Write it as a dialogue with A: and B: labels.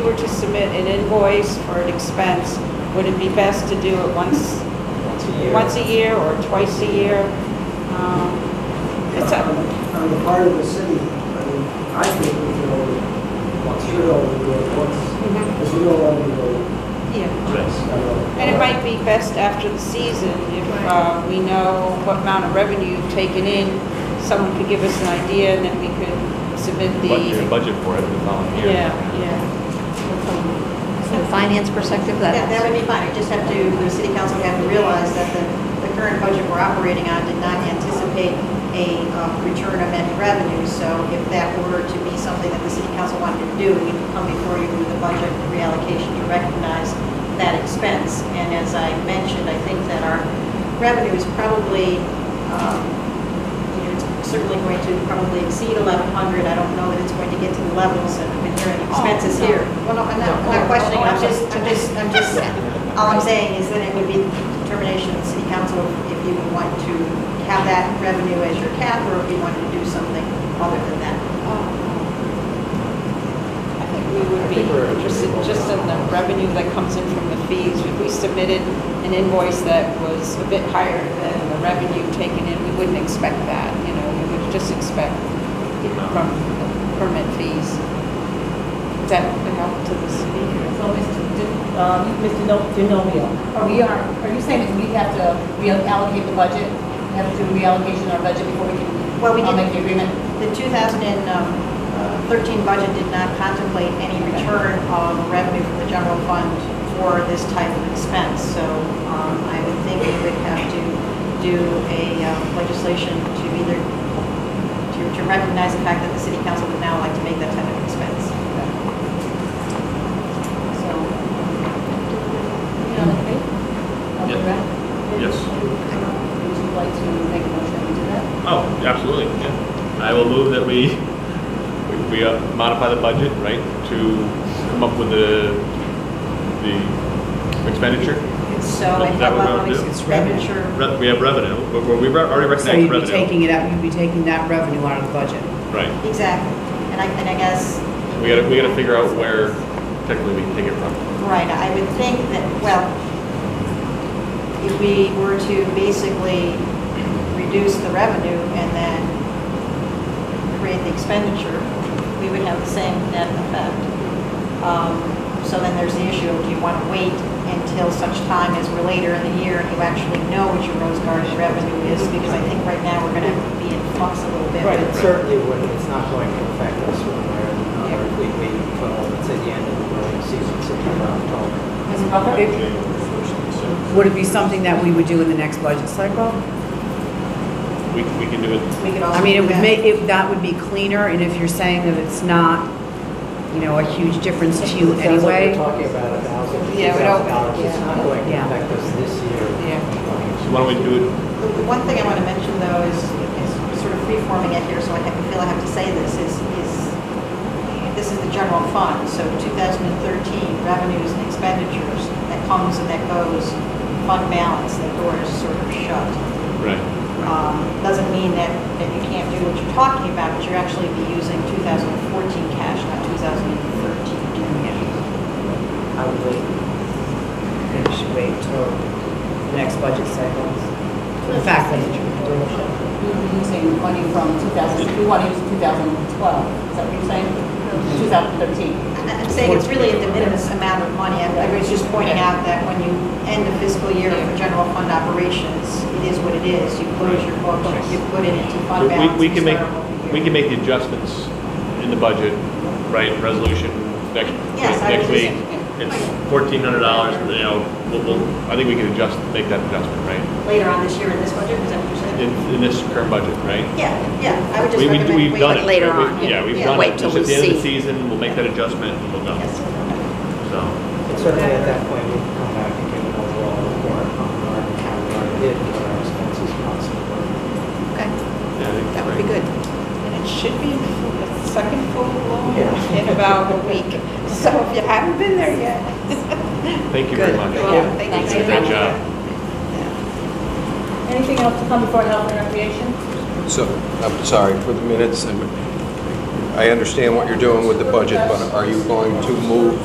A: were to submit an invoice for an expense, would it be best to do it once,
B: Once a year.
A: once a year or twice a year? Um, It's
C: on
A: a,
C: on the part of the city, I mean, I think we should only, should only do it once,
A: Mhm.
C: because you don't want to go,
A: yeah.
C: uh,
A: And it might be best after the season, if uh, we know what amount of revenue you've taken in, someone could give us an idea, and then we could submit the...
D: Budget budget for it, the following year.
A: Yeah, yeah.
E: From a finance perspective, that
F: Yeah, that
E: was-
F: would be fine, I just have to, the city council would have to realize that the, the current budget we're operating on did not anticipate a uh, return of any revenue, so if that were to be something that the city council wanted to do, we could come before you with a budget reallocation to recognize that expense. And as I mentioned, I think that our revenue is probably, um, you know, it's certainly going to probably exceed 1,100. I don't know that it's going to get to the levels that we've been hearing expenses
A: Oh, no.
F: here. Well, no, I'm not, I'm not questioning, I'm just, I'm just, I'm just, all I'm saying is that it would be determination of the city council if you would want to have that revenue as your cap or if you wanted to do something other than that.
A: I think we would be interested just in the revenue that comes in from the fees. If we submitted an invoice that was a bit higher than the revenue taken in, we wouldn't expect that, you know, we would just expect from the permit fees. Does that help to the speaker?
G: So, Mr. D- um, Mr. No- DiNomio, are we are, are you saying that we have to reallocate the budget? We Have to do reallocation of our budget before we can?
F: Well, we
G: uh,
F: did-
G: Make the agreement?
F: The 2013 um, uh, budget did not contemplate any return of revenue from the general fund for this type of expense, so um, I would think we would have to do a uh, legislation to either, to- to recognize the fact that the city council would now like to make that type of expense. So,
G: Okay,
D: Yeah.
G: right?
D: Yes.
G: Would you like to make a motion to do that?
D: Oh, absolutely, yeah. I will move that we, we- we uh, modify the budget, right, to come up with the, the expenditure.
F: so I
D: Is that
F: have
D: what we'll
F: all
D: do?
F: these expenditure.
D: Re- We have revenue, but we re- already
H: So
D: recognized
H: you'd be
D: revenue.
H: taking it out, you'd be taking that revenue out of the budget.
D: Right.
F: Exactly. And I, and I guess.
D: We gotta, we gotta figure out where technically we can take it from.
F: Right, I would think that, well, if we were to basically reduce the revenue and then create the expenditure, we would have the same net effect. Um, So then there's the issue, of do you want to wait until such time as we're later in the year and you actually know what your Rose Garden revenue is? Because I think right now we're going to be in flux a little bit.
B: Right, it certainly would, it's not going to affect us one way or another if we wait until, let's say, the end of the growing season, September, October.
G: Mr. Butler?
H: Would it be something that we would do in the next budget cycle?
D: We, we can do it,
F: We could also
H: I mean, it
F: do
H: would
F: that.
H: make, it- that would be cleaner, and if you're saying that it's not, you know, a huge difference to you
B: It sounds like we're
H: anyway.
B: talking about a thousand, two
A: Yeah, we
B: thousand
A: don't-
B: dollars, it's not going to
H: Yeah.
B: affect us this year.
D: so why don't we do it,
F: The the one thing I want to mention, though, is, is sort of free-forming it here, so I have- feel I have to say this, is, is, this is the general fund, so 2013 revenues and expenditures, that comes and that goes, fund balance, that door is sort of shut.
D: right,
F: Um, Doesn't mean that, that you can't do what you're talking about, but you're actually be using 2014 cash, not 2013 cash.
H: I would wait. Maybe we should wait till the next budget cycle. The fact that,
G: You're using money from 2000, we want to use 2012, is that what you're saying? 2013.
F: I- I'm saying it's really a de minimis amount of money. I I was just pointing out that when you end the fiscal year for general fund operations, it is what it is. You close your books, you put it into fund balance.
D: We, we
F: you
D: can make,
F: start over
D: we
F: here.
D: can make the adjustments in the budget, right, resolution next,
F: Yes, I
D: next
F: would
D: week.
F: just-
D: It's fourteen hundred dollars, you know, we'll, we'll, I think we can adjust, make that adjustment, right?
F: Later on this year in this budget, is that what you're saying?
D: In, in this current budget, right?
F: Yeah, yeah, I would just
D: We- we-
F: recommend.
D: We've done it.
E: Like later
D: right? We-
E: on,
D: Yeah, we've
F: yeah.
D: done it.
E: Wait till
D: Just At the
E: we
D: end of the
E: see.
D: season, we'll make that adjustment and we'll know,
F: Yes.
D: so.
B: And certainly at that point, we can come back and give an overall report on our, how our bid, what our expenses possibly were.
E: okay,
D: yeah, I think
E: that would be
D: great.
E: good.
A: And it should be the second full blown
B: Yeah.
A: in about a week, so if you haven't been there yet.
D: Thank you very
H: Good.
D: much.
A: well, thank you.
D: Great job.
G: Anything else to come before Health and Recreation?
I: So, I'm sorry, for the minutes, I'm- I understand what you're doing with the budget, but are you going to move